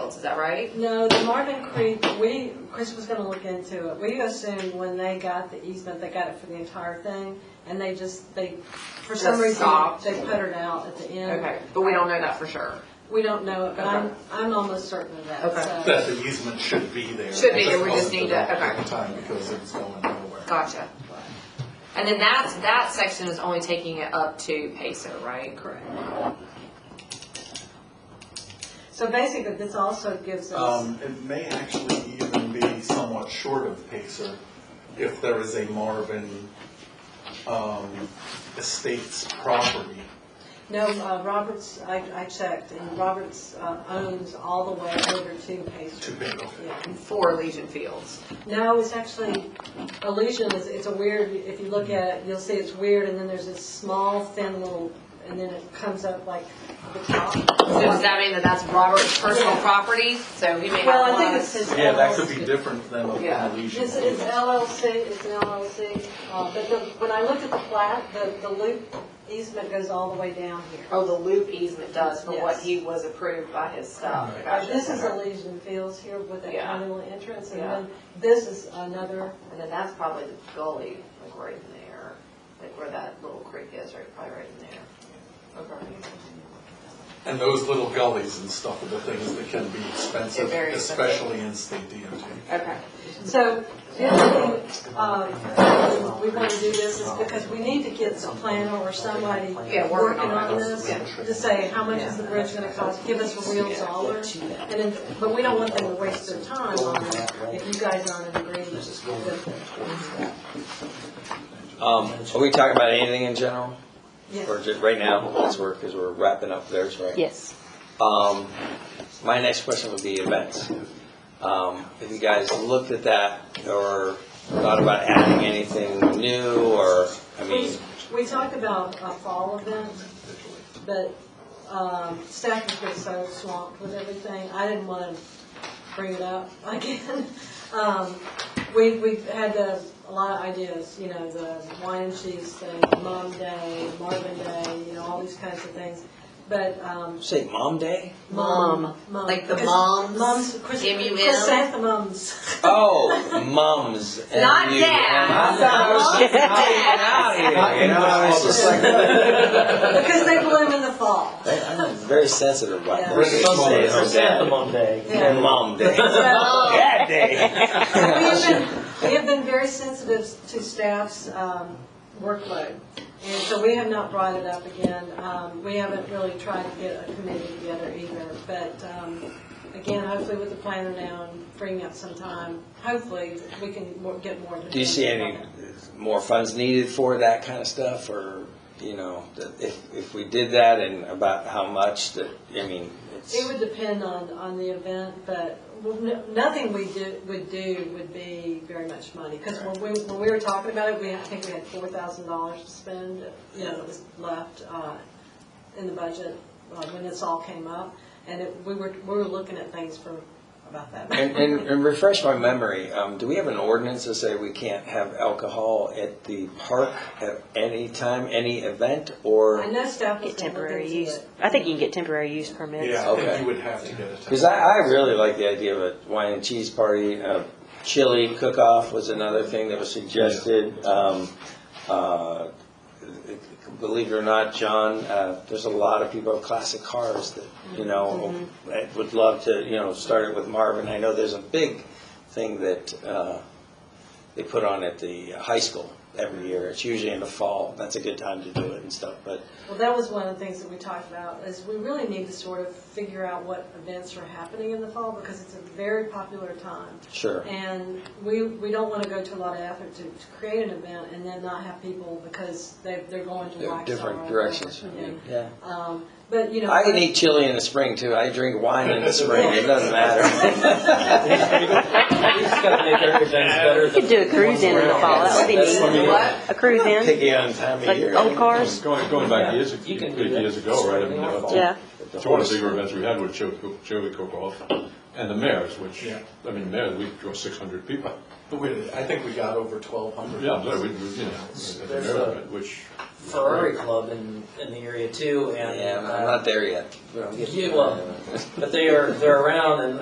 fields, is that right? No, the Marvin Creek, we, Chris was gonna look into it. We assumed when they got the easement, they got it for the entire thing, and they just, they, for some Just reason, stopped. they put it out at the end. Okay, but we don't know that for sure. We don't know it, but I'm, Okay. I'm almost certain of that, Okay. so. That the easement should be there. Should be there, we just wasn't need to- developed At okay. the time, because it's going nowhere. Gotcha. And then that's, that section is only taking it up to Peso, right? Correct. So basically, this also gives us, Um, it may actually even be somewhat short of Pacer if there is a Marvin, um, Estates property. no, uh, Roberts, I, I checked, and Roberts uh, owns all the way over to to Pacer. pay off. Yeah. And Four Legion Fields. No, it's actually, Illusion is, it's a weird, if you look at it, you'll see it's weird, and then there's this small, thin little, and then it comes up like the top. So does that mean that that's Robert's personal Yeah. property? So he may Well, have I think one. it's his LLC. Yeah, that could be different than a Yeah. Polynesian. It's, it's LLC, it's an LLC, uh, but the, when I looked at the plat, the, the loop easement goes all the way down here. Oh, the loop easement does for what Yes. he was approved by his stuff. Uh, Gotcha. This is Elysian Fields here with that Yeah. common little entrance, and Yeah. then this is another, And then that's probably the gully, like right in there, like where that little creek is, right, probably right in there. Okay. And those little gullies and stuff are the things that can be expensive, They're very expensive. especially in state DOT. Okay. so, the other thing, uh, we want to do this is because we need to get some planner or somebody Yeah, working working on on it. this, Yeah. to say, how much is the bridge gonna cost, give us a real dollar, and then, but we don't want them to waste their time on it, if you guys aren't in agreement with it. Um, are we talking about anything in general? Yes. Or just right now, as we're, because we're wrapping up theirs, right? Yes. Um, my next question would be events. Um, have you guys looked at that or thought about adding anything new or, I mean, We, we talked about a fall event, but um, staff has been so swamped with everything, I didn't want to bring it up again. Um, We, we've had the- a lot of ideas, you know, the wine and cheese thing, Mom Day, Marvin Day, you know, all these kinds of things, but. um, say Mom Day? Mom, mom- like the Chris- moms, Moms, Chris- M-U-M. chrysanthemums. Oh, mums. and Not you- dads. and I was just Not not even out here, you know, I was just like. Because they bloom in the fall. I'm very sensitive about Yeah. that. British Mom Day. Chrysanthemum Day. Yeah. Mom Day. So- Dad Day. We have been, we have been very sensitive to staff's um, workload, and so we have not brought it up again. Um, We haven't really tried to get a committee together either, but um, again, hopefully with the planner now and freeing up some time, hopefully we can mo- get more. Do you see any more funds needed for that kind of stuff, or, you know, that if, if we did that and about how much, that, I mean, It it's, would depend on, on the event, but well, no- nothing we do, would do would be very much money. Because when we, when we were talking about it, we, I think we had four thousand dollars to spend, uh, you know, that was left, uh, in the budget, uh, when this all came up. And it, we were, we were looking at things for about that. and, and and refresh my memory, um, do we have an ordinance to say we can't have alcohol at the park at any time, any event, I or? know staff was Get gonna look temporary into use, it. I think you can get temporary use permits. Yeah, I Okay. think you would have to get a. Because I, I really like the idea of a wine and cheese party, a chili cook-off was another thing that was suggested. Um, uh, Believe it or not, John, uh, there's a lot of people with classic cars that, you know, that would love to, you know, start it with Marvin. I know there's a big thing that uh, they put on at the high school every year. It's usually in the fall. That's a good time to do it and stuff, but Well, that was one of the things that we talked about, is we really need to sort of figure out what events are happening in the fall, because it's a very popular time. sure. And we, we don't want to go to a lot of effort to, to create an event and then not have people because they, they're going to There are Waxaw. different or directions. whatever, yeah. Yeah. Um, But, you know. I can eat chili in the spring too. I drink wine in the spring. It doesn't matter. We just gotta make everything better You could do a cruise in in the fall, that would be That's what I mean. neat. A cruise in, Picky on time of like year. old cars, Going, going back years, You can do that. years ago, right, I mean, uh, yeah. it's one of the bigger events we had with Joey Cook- Joey Cookoff and the mayors, which, Yeah. I mean, mayor, we draw six hundred people. But wait, I think we got over twelve hundred. Yeah, I'm sorry, we, we, you know, at the There's mayor a- event, which, Ferrari Club in, in the area too, and. Yeah, I'm uh, not there yet. but I'm getting Yeah, well, there. But they are, they're around and